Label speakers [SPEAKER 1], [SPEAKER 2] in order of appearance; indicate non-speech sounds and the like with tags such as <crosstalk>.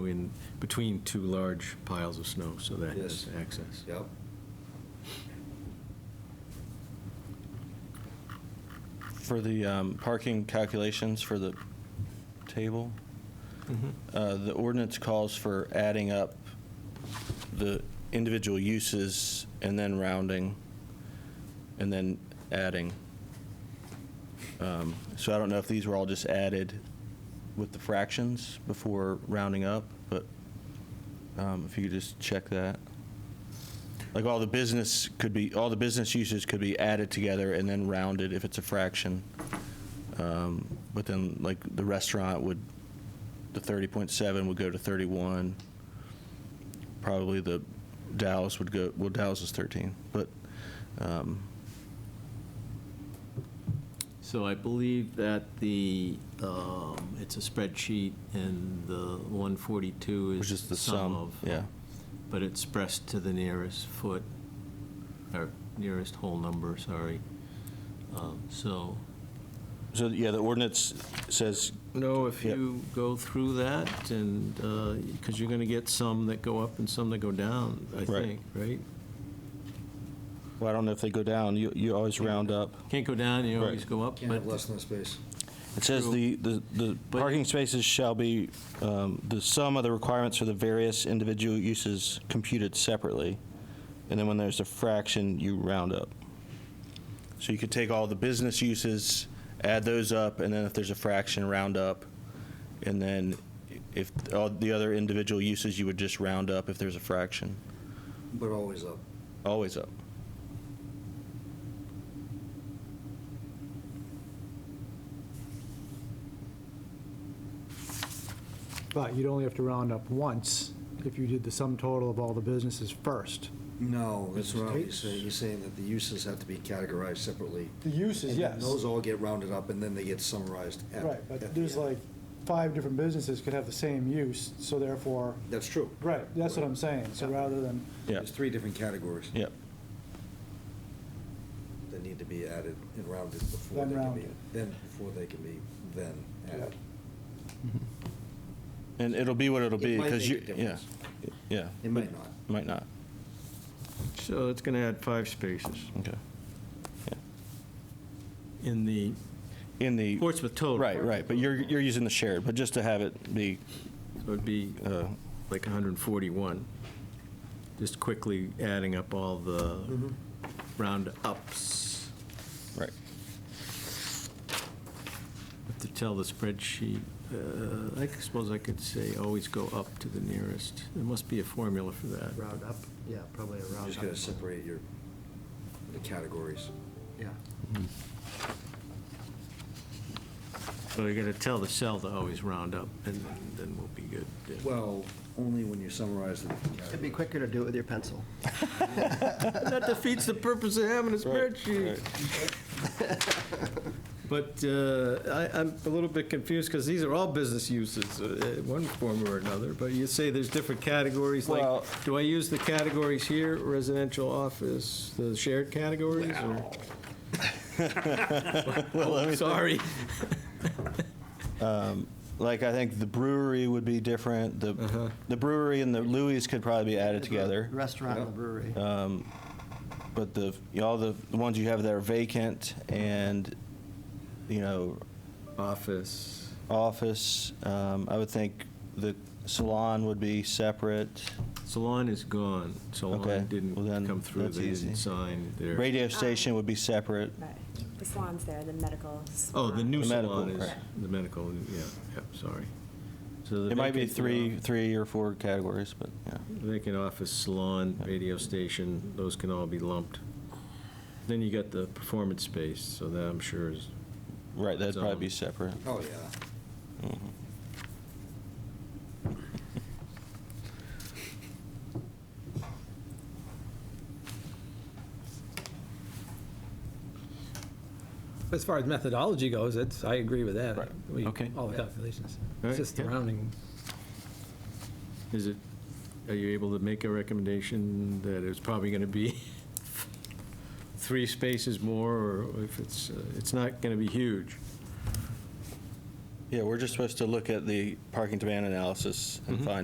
[SPEAKER 1] in between two large piles of snow, so that
[SPEAKER 2] Yes.
[SPEAKER 1] has access.
[SPEAKER 2] Yep.
[SPEAKER 3] For the um, parking calculations for the table, uh, the ordinance calls for adding up the individual uses and then rounding, and then adding. Um, So I don't know if these were all just added with the fractions before rounding up, but um, if you could just check that. Like all the business could be, all the business uses could be added together and then rounded if it's a fraction. Um, But then like the restaurant would, the 30.7 would go to 31. Probably the Dallas would go, well, Dallas is 13, but, um,
[SPEAKER 1] So I believe that the, um, it's a spreadsheet, and the 142 is.
[SPEAKER 3] which is the sum,
[SPEAKER 1] of, uh,
[SPEAKER 3] yeah.
[SPEAKER 1] But it's expressed to the nearest foot, or nearest whole number, sorry. Um, So,
[SPEAKER 3] So, yeah, the ordinance says,
[SPEAKER 1] no, if
[SPEAKER 3] Yep.
[SPEAKER 1] you go through that, and, because you're going to get some that go up and some that go down, I
[SPEAKER 3] Right.
[SPEAKER 1] think, right?
[SPEAKER 3] well, I don't know if they go down, you, you always round up.
[SPEAKER 1] Can't go down, you
[SPEAKER 3] Right.
[SPEAKER 1] always go up,
[SPEAKER 2] Can't
[SPEAKER 1] but
[SPEAKER 2] have less than that space.
[SPEAKER 3] It says the, the, the parking spaces shall be, um, the sum of the requirements for the various individual uses computed separately. And then when there's a fraction, you round up. So you could take all the business uses, add those up, and then if there's a fraction, round up. And then if all the other individual uses, you would just round up if there's a fraction.
[SPEAKER 2] but always up.
[SPEAKER 3] Always up.
[SPEAKER 4] But you'd only have to round up once if you did the sum total of all the businesses first.
[SPEAKER 2] No, that's what he's saying. He's saying that the uses have to be categorized separately.
[SPEAKER 4] The uses,
[SPEAKER 2] And then those all get rounded up and then they get summarized at.
[SPEAKER 4] Right, but
[SPEAKER 2] at
[SPEAKER 4] there's
[SPEAKER 2] the end.
[SPEAKER 4] like five different businesses could have the same use, so therefore,
[SPEAKER 2] That's true.
[SPEAKER 4] right, that's what I'm saying. So rather than,
[SPEAKER 3] Yeah,
[SPEAKER 2] There's three different categories
[SPEAKER 3] yeah.
[SPEAKER 2] that need to be added and rounded before
[SPEAKER 4] Then
[SPEAKER 2] they can be,
[SPEAKER 4] rounded.
[SPEAKER 2] then, before they can be then added.
[SPEAKER 3] And it'll be what it'll
[SPEAKER 2] It
[SPEAKER 3] be,
[SPEAKER 2] might
[SPEAKER 3] because
[SPEAKER 2] make
[SPEAKER 3] you,
[SPEAKER 2] a
[SPEAKER 3] yeah,
[SPEAKER 2] difference.
[SPEAKER 3] yeah.
[SPEAKER 2] It might not.
[SPEAKER 3] Might not,
[SPEAKER 1] So it's going to add five spaces
[SPEAKER 3] okay. Yeah.
[SPEAKER 1] in the
[SPEAKER 3] In the.
[SPEAKER 1] Portsmouth total.
[SPEAKER 3] Right, right, but you're, you're using the shared, but just to have it be,
[SPEAKER 1] So it'd be
[SPEAKER 3] uh,
[SPEAKER 1] like 141, just quickly adding up all the round ups.
[SPEAKER 3] right,
[SPEAKER 1] Have to tell the spreadsheet, uh, I suppose I could say always go up to the nearest. There must be a formula for that.
[SPEAKER 5] Round up, yeah, probably a
[SPEAKER 2] You're
[SPEAKER 5] round
[SPEAKER 2] just gonna
[SPEAKER 5] up.
[SPEAKER 2] separate your, the categories.
[SPEAKER 5] Yeah,
[SPEAKER 1] So you got to tell the cell to always round up, and then we'll be good.
[SPEAKER 2] Well, only when you summarize the categories.
[SPEAKER 5] it'd be quicker to do it with your pencil.
[SPEAKER 1] That defeats the purpose of having a spreadsheet. But uh, I- I'm a little bit confused, because these are all business uses, uh, in one form or another, but you say there's different categories, like,
[SPEAKER 3] Well-
[SPEAKER 1] do I use the categories here, residential office, the shared categories, or? <laughs>
[SPEAKER 3] <laughs>
[SPEAKER 1] Oh, Sorry. <laughs>
[SPEAKER 3] like, I think the brewery would be different,
[SPEAKER 1] Uh-huh.
[SPEAKER 3] the, the brewery and the Louis could probably be added together,
[SPEAKER 5] Restaurant and the brewery.
[SPEAKER 3] but the, all the the ones you have that are vacant and, you know,
[SPEAKER 1] Office.
[SPEAKER 3] office, um, I would think the salon would be separate,
[SPEAKER 1] Salon is gone.
[SPEAKER 3] Okay,
[SPEAKER 1] Salon didn't
[SPEAKER 3] well then,
[SPEAKER 1] come through,
[SPEAKER 3] that's
[SPEAKER 1] they didn't
[SPEAKER 3] easy.
[SPEAKER 1] sign their.
[SPEAKER 3] radio station would be separate,
[SPEAKER 6] Right, the salon's there, the medical
[SPEAKER 1] Oh, the
[SPEAKER 6] salon.
[SPEAKER 1] new
[SPEAKER 3] The medical,
[SPEAKER 1] salon is,
[SPEAKER 3] right.
[SPEAKER 1] the medical, yeah, yeah, sorry. So the uh,
[SPEAKER 3] it might be
[SPEAKER 1] vacant
[SPEAKER 3] three,
[SPEAKER 1] salon-
[SPEAKER 3] three or four categories, but, yeah.
[SPEAKER 1] Vacant office, salon, radio station, those can all be lumped. Then you got the performance space, so that I'm sure is,
[SPEAKER 3] Right, that'd probably be
[SPEAKER 1] Zone.
[SPEAKER 3] separate. Mm-hmm.
[SPEAKER 2] Oh, yeah.
[SPEAKER 7] As far as methodology goes, it's, I agree with that.
[SPEAKER 3] Right.
[SPEAKER 7] We-
[SPEAKER 1] Okay.
[SPEAKER 7] All the calculations.
[SPEAKER 1] Right,
[SPEAKER 7] It's just the
[SPEAKER 1] yeah.
[SPEAKER 7] rounding.
[SPEAKER 1] is it, are you able to make a recommendation that it's probably going to be <laughs> three spaces more, or if it's, uh, it's not going to be huge?
[SPEAKER 3] Yeah, we're just supposed to look at the parking demand analysis and find